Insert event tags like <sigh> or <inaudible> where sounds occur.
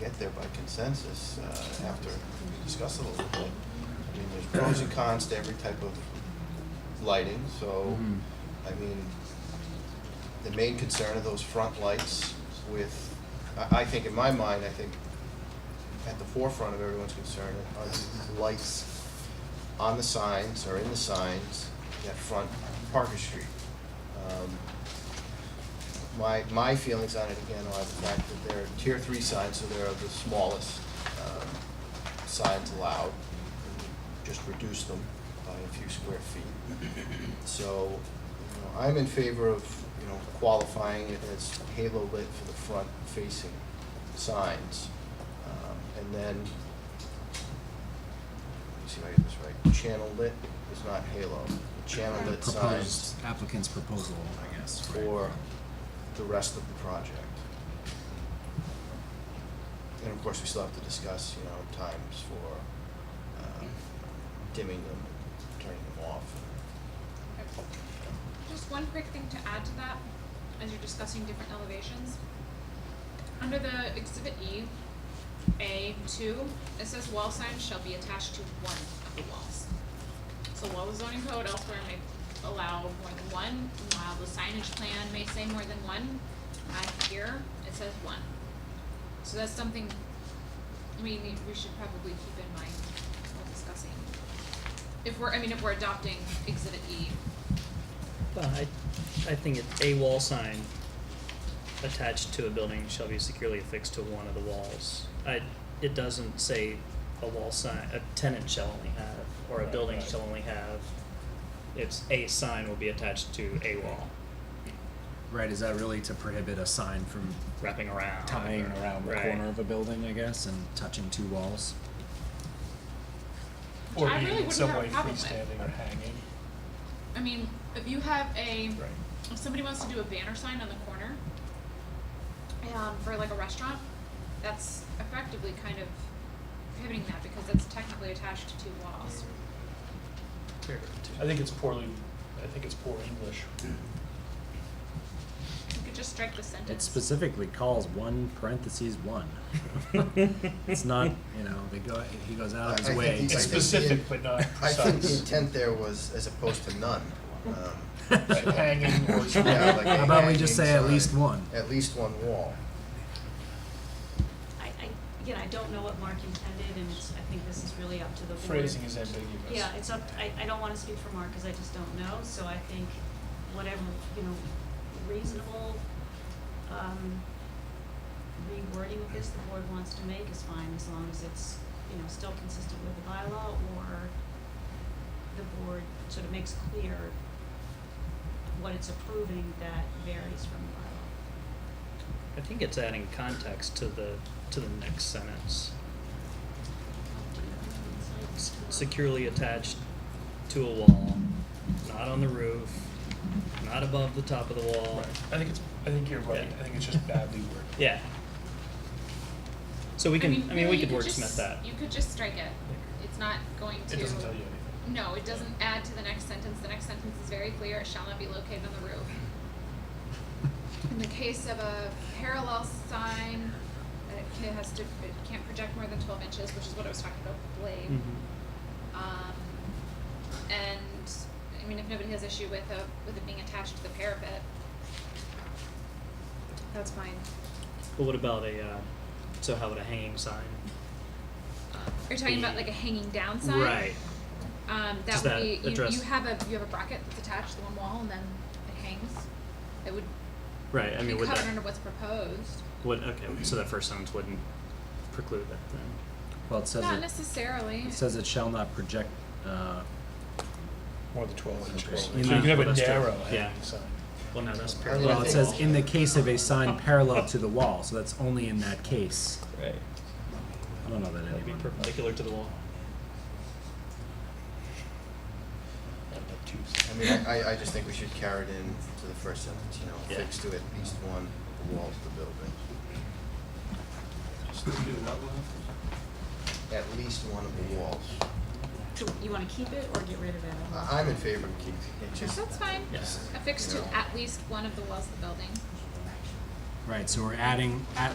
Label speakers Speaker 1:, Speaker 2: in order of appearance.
Speaker 1: get there by consensus uh, after we discuss it a little bit. I mean, there's pros and cons to every type of lighting, so,
Speaker 2: Mhm.
Speaker 1: I mean, the main concern are those front lights with, I, I think in my mind, I think at the forefront of everyone's concern are the lights on the signs or in the signs that front Parker Street. Um, My, my feelings on it again are the fact that they're tier three signs, so they're the smallest um, signs allowed. Just reduce them by a few square feet. So, you know, I'm in favor of, you know, qualifying it as halo lit for the front facing signs. Um, And then, let me see if I get this right, channel lit is not halo, channel lit signs
Speaker 2: Proposed, applicant's proposal, I guess,
Speaker 1: uh,
Speaker 2: right?
Speaker 1: for the rest of the project. And of course, we still have to discuss, you know, times for um, dimming them, turning them off,
Speaker 3: Just one quick thing to add to that, as you're discussing different elevations. Under the exhibit E, A two, it says wall signs shall be attached to one of the walls. So while the zoning code elsewhere may allow more than one, while the signage plan may say more than one, I here, it says one. So that's something, I mean, we should probably keep in mind while discussing. If we're, I mean, if we're adopting exhibit E,
Speaker 4: Well, I, I think it, a wall sign attached to a building shall be securely affixed to one of the walls. I, it doesn't say a wall sign, a tenant shall only have, or a
Speaker 5: Right,
Speaker 4: building
Speaker 5: right.
Speaker 4: shall only have. It's a sign will be attached to a wall,
Speaker 2: Right, is that really to prohibit a sign from
Speaker 4: wrapping around.
Speaker 2: tying
Speaker 4: or-
Speaker 2: around the
Speaker 4: right.
Speaker 2: corner of a building, I guess, and touching two walls?
Speaker 3: Which
Speaker 5: Or
Speaker 3: I
Speaker 5: being
Speaker 3: really
Speaker 5: in
Speaker 3: wouldn't
Speaker 5: some
Speaker 3: have a
Speaker 5: way
Speaker 3: problem with.
Speaker 5: freestanding or hanging.
Speaker 3: I mean, if you have a,
Speaker 5: Right.
Speaker 3: if somebody wants to do a banner sign on the corner, um, for like a restaurant, that's effectively kind of prohibiting that because that's technically attached to two walls.
Speaker 5: I think it's poorly, I think it's poor English.
Speaker 3: You could just strike the sentence.
Speaker 2: It specifically calls one parentheses
Speaker 5: <laughs>
Speaker 2: one. It's not, you know, they go, he goes out of
Speaker 1: I- I
Speaker 2: his way.
Speaker 1: think
Speaker 2: to-
Speaker 5: It's
Speaker 1: think the-
Speaker 5: specific but not
Speaker 1: I think the
Speaker 5: precise.
Speaker 1: intent there was as opposed to none. Um, <laughs>
Speaker 5: Like Hanging or
Speaker 1: yeah, like a
Speaker 2: How about we just
Speaker 1: hanging
Speaker 2: say at
Speaker 1: sign,
Speaker 2: least one?
Speaker 1: At least one wall.
Speaker 6: I, I, again, I don't know what Mark intended, and it's, I think this is really up to the board.
Speaker 5: phrasing is ambiguous.
Speaker 6: Yeah, it's up, I, I don't wanna speak for Mark, cause I just don't know, so I think whatever, you know, reasonable, um, rewording of this the board wants to make is fine, as long as it's, you know, still consistent with the bylaw, or the board sort of makes clear what it's approving that varies from the bylaw.
Speaker 4: I think it's adding context to the, to the next sentence. S- Securely attached to a wall, not on the roof, not above the top of the wall.
Speaker 5: Right. I think it's, I think you're right.
Speaker 4: Yeah.
Speaker 5: I think it's just badly
Speaker 4: <laughs>
Speaker 5: worded.
Speaker 4: Yeah. So we can, I mean,
Speaker 3: really,
Speaker 4: we could
Speaker 3: you
Speaker 4: wordsmith
Speaker 3: just-
Speaker 4: that.
Speaker 3: You could just strike it. It's not going to.
Speaker 5: It doesn't tell you anything.
Speaker 3: No, it doesn't add to the next sentence. The next sentence is very clear. It shall not be located on the roof. In the case of a parallel sign, it ca- has to, it can't project more than twelve inches, which is what I was talking about, with blade.
Speaker 4: Mm-hmm.
Speaker 3: Um, and, I mean, if nobody has issue with a, with it being attached to the parapet, that's fine.
Speaker 4: But what about a, uh, so how would a hanging sign?
Speaker 3: Are you talking about like a hanging down sign?
Speaker 4: Right.
Speaker 3: Um,
Speaker 4: Does
Speaker 3: that would
Speaker 4: that
Speaker 3: be, you,
Speaker 4: address-
Speaker 3: you have a, you have a bracket that's attached to one wall and then it hangs. It would
Speaker 4: Right. I
Speaker 3: be
Speaker 4: mean, would
Speaker 3: covered
Speaker 4: that,
Speaker 3: under what's proposed.
Speaker 4: would, okay, so that first sentence wouldn't preclude that then.
Speaker 2: Well, it says
Speaker 3: Not
Speaker 2: it,
Speaker 3: necessarily.
Speaker 2: it says it shall not project, uh,
Speaker 5: More than twelve inches.
Speaker 2: inches.
Speaker 5: So
Speaker 2: You
Speaker 5: you can
Speaker 4: know,
Speaker 5: have a
Speaker 4: that's true.
Speaker 5: narrow
Speaker 4: Yeah.
Speaker 5: hanging sign.
Speaker 4: Well, no, that's
Speaker 1: I mean, I
Speaker 2: well,
Speaker 4: parallel.
Speaker 2: it
Speaker 1: think-
Speaker 2: says in the case of a sign parallel to the wall, so that's only in that case.
Speaker 4: Right.
Speaker 2: I don't know that
Speaker 4: That'd be
Speaker 2: anyone.
Speaker 4: perpendicular to the wall.
Speaker 5: Not that too-
Speaker 1: I mean, I, I- I just think we should carry it in to the first sentence, you know,
Speaker 4: Yeah.
Speaker 1: fixed to at least one of the walls of the building. At least one of the walls.
Speaker 6: So you wanna keep it or get rid of it?
Speaker 1: I, I'm in favor of keeping it, just.
Speaker 3: That's fine.
Speaker 4: Yes.
Speaker 3: Affixed to at least one of the walls of the building.
Speaker 2: Right, so we're adding at